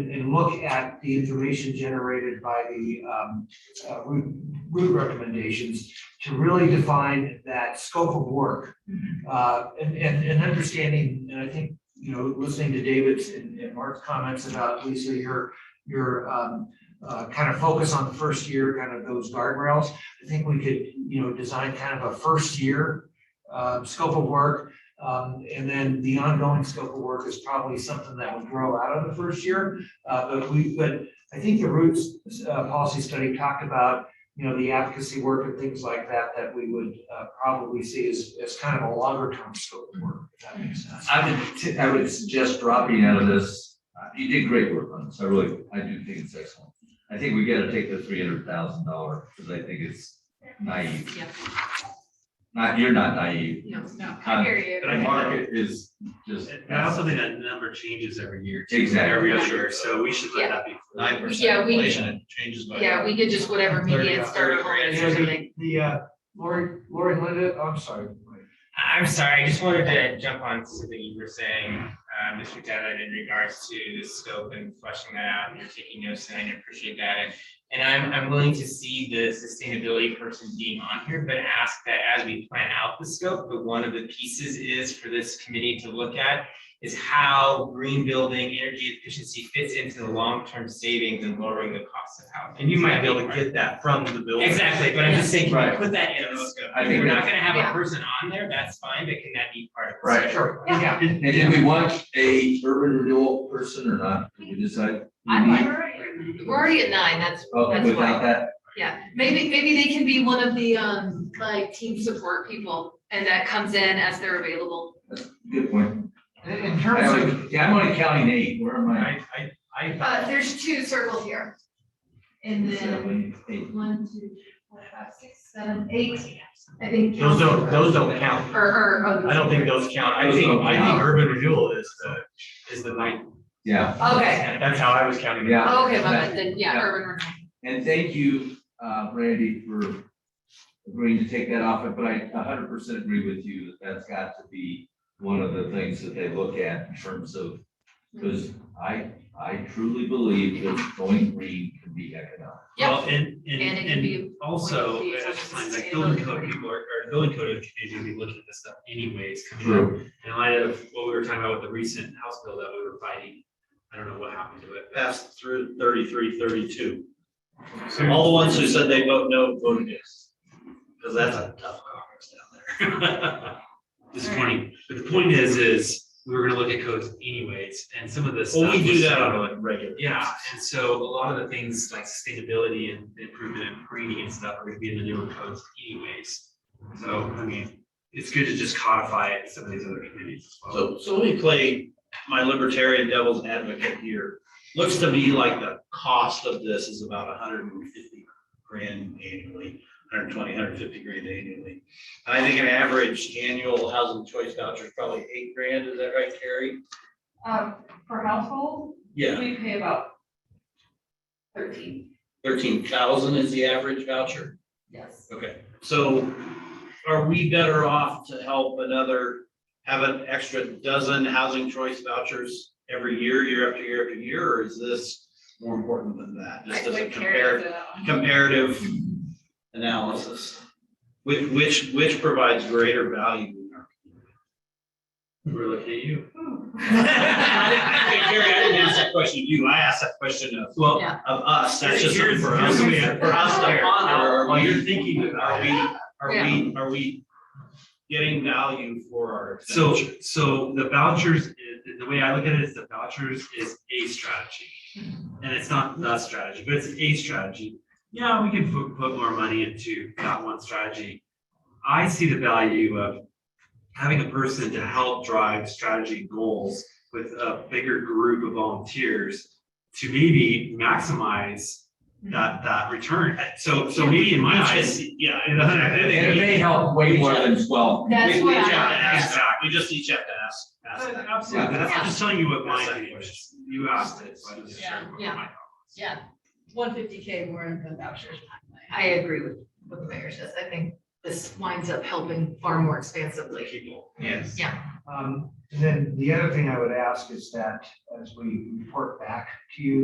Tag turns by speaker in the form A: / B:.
A: and, and look at the information generated by the, um, uh, route, route recommendations to really define that scope of work. Uh, and, and, and understanding, and I think, you know, listening to David's and, and Mark's comments about Lisa, your, your, um, uh, kind of focus on the first year, kind of those guardrails. I think we could, you know, design kind of a first year, uh, scope of work um, and then the ongoing scope of work is probably something that would grow out of the first year. Uh, but we, but I think the roots, uh, policy study talked about, you know, the advocacy work and things like that, that we would, uh, probably see as, as kind of a longer term scope of work, if that makes sense.
B: I would, t- I would suggest dropping out of this. Uh, You did great work on this. I really, I do think it's excellent. I think we gotta take the three hundred thousand dollar, because I think it's naive.
C: Yeah.
B: Not, you're not naive.
C: No, no,
B: Kind
C: I
B: of-
C: hear you.
D: I
B: The market is just.
D: And I also think that number changes every year. too,
B: Exactly.
D: Every other year, so we should let that be.
E: nine
C: Yeah,
E: percent
C: we-
E: inflation, it changes by.
C: Yeah, we did just whatever median
E: Thirty,
C: starter
E: uh,
C: home
E: thirty
C: is
E: grand.
C: or something.
A: The, uh, Lori, Lori and Linda, I'm sorry. Mike.
F: I'm sorry, I just wanted to jump on to something you were saying, uh, Mr. Devon, in regards to the scope and fleshing that out, and you're taking notes, and I appreciate that. And- And I'm, I'm willing to see the sustainability person being on here, but ask that as we plan out the scope, but one of the pieces is for this committee to look at is how green building, energy efficiency fits into the long-term savings and lowering the cost of housing.
D: And you might be able
F: That'd
D: to
F: great.
D: get that from the building.
F: Exactly, but I'm just saying, can
B: Right.
F: we put that in the scope?
B: I
F: If
B: think
F: we're not
B: that's-
F: gonna have
C: Yeah.
F: a person on there, that's fine, but can that be part of the
B: Right.
F: scope?
A: Sure, yeah.
B: And did we want a urban renewal person or not? Did we decide?
C: I like-
G: Alright.
C: We're already at nine, that's,
B: Okay,
C: that's
B: without
C: fine.
B: Oh, that,
C: Yeah, maybe, maybe they can be one of the, um, like team support people and that comes in as they're available.
B: good point.
A: In, in
B: I
A: terms of,
B: only- Yeah, I'm only counting eight. Where am I?
D: I, I, I.
C: Uh, there's two circled here.
G: And then
B: Seven, eight.
G: one, two, four, five, six, seven, eight, I think.
D: Those don't, those don't count.
C: Or, or,
D: I
C: oh,
D: don't think those count. I
B: Those
D: think,
B: don't
D: I think
B: count.
D: urban renewal is the, is the ninth.
B: Yeah,
C: okay,
D: That's how I was counting. it.
B: Yeah.
C: Oh, okay, my bad, then, yeah,
B: Yeah.
C: urban renewal.
B: and thank you, uh, Randy, for agreeing to take that off, but I hundred percent agree with you that that's got to be one of the things that they look at in terms of, because I, I truly believe that going green can be economic.
C: Yep.
D: Well, and, and,
C: And it can
D: and
C: be,
D: also,
C: be
D: at the
C: something
D: time, like
C: sustainable.
D: building code people are, or building code engineers will be looking at this stuff anyways. coming up.
B: True.
D: In light of what we were talking about with the recent house bill that we were fighting, I don't know what happened to it.
E: Passed through thirty-three, thirty-two.
D: So-
E: All the ones who said they vote no voted yes. Because that's a tough Congress down there.
D: disappointing. But the point is, is we were gonna look at codes anyways, and some of this.
E: Well, we
D: stuff
E: do
D: was-
E: that on a regular.
D: Yeah, and so a lot of the things like sustainability and improvement and greening and stuff are gonna be in the newer codes anyways. So, I mean, it's good to just codify it in some of these other committees as well.
E: So, so let me play my libertarian devil's advocate here. Looks to me like the cost of this is about hundred and fifty grand annually, 120, 150 grand annually. And I think an average annual housing choice voucher is probably eight grand, is that right, Carrie?
G: Um, per household,
E: Yeah,
G: we pay about thirteen,
E: thirteen thousand is the average voucher.
G: yes.
E: Okay, so are we better off to help another, have an extra dozen housing choice vouchers every year, year after year after year, or is this more important than that? Just as a comparative, comparative analysis, which, which, which provides greater value? in our
D: We're looking at you.
E: I didn't- I didn't- Gary, I didn't ask that question of you, I asked that question of, well,
C: Yeah.
E: of us, that's just
D: Here's-
E: something for
D: here's
E: us,
D: what we have.
E: for us to ponder, are
D: While
E: we-
D: you're thinking
E: Are
D: about
E: we,
D: it.
E: are we, are we getting value for our
D: So,
E: expenditure?
D: so the vouchers, is- the way I look at it is the vouchers is a strategy. And it's not the strategy, but it's a strategy. Yeah, we can put, put more money into that one strategy. I see the value of having a person to help drive strategy goals with a bigger group of volunteers to maybe maximize that, that return. So, so maybe in my
E: It's
D: eyes.
E: just- Yeah. I-
D: And
B: And it may help way more than twelve.
C: That's
E: We-
C: what
E: We
C: I-
E: each have to ask, that.
D: Exactly.
E: we just each have to ask, ask that.
D: Absolutely,
B: Yeah.
D: that's, I'm just telling you what my
E: That's
D: opinion
E: like-
D: is, you asked it, so I just
G: Yeah,
D: shared what
C: yeah.
D: my.
C: Yeah,
G: One fifty K more in the vouchers.
C: I agree with what the mayor says, I think this winds up helping far more expansively.
E: people.
F: Yes.
A: Um, and then the other thing I would ask is that as we report back to you,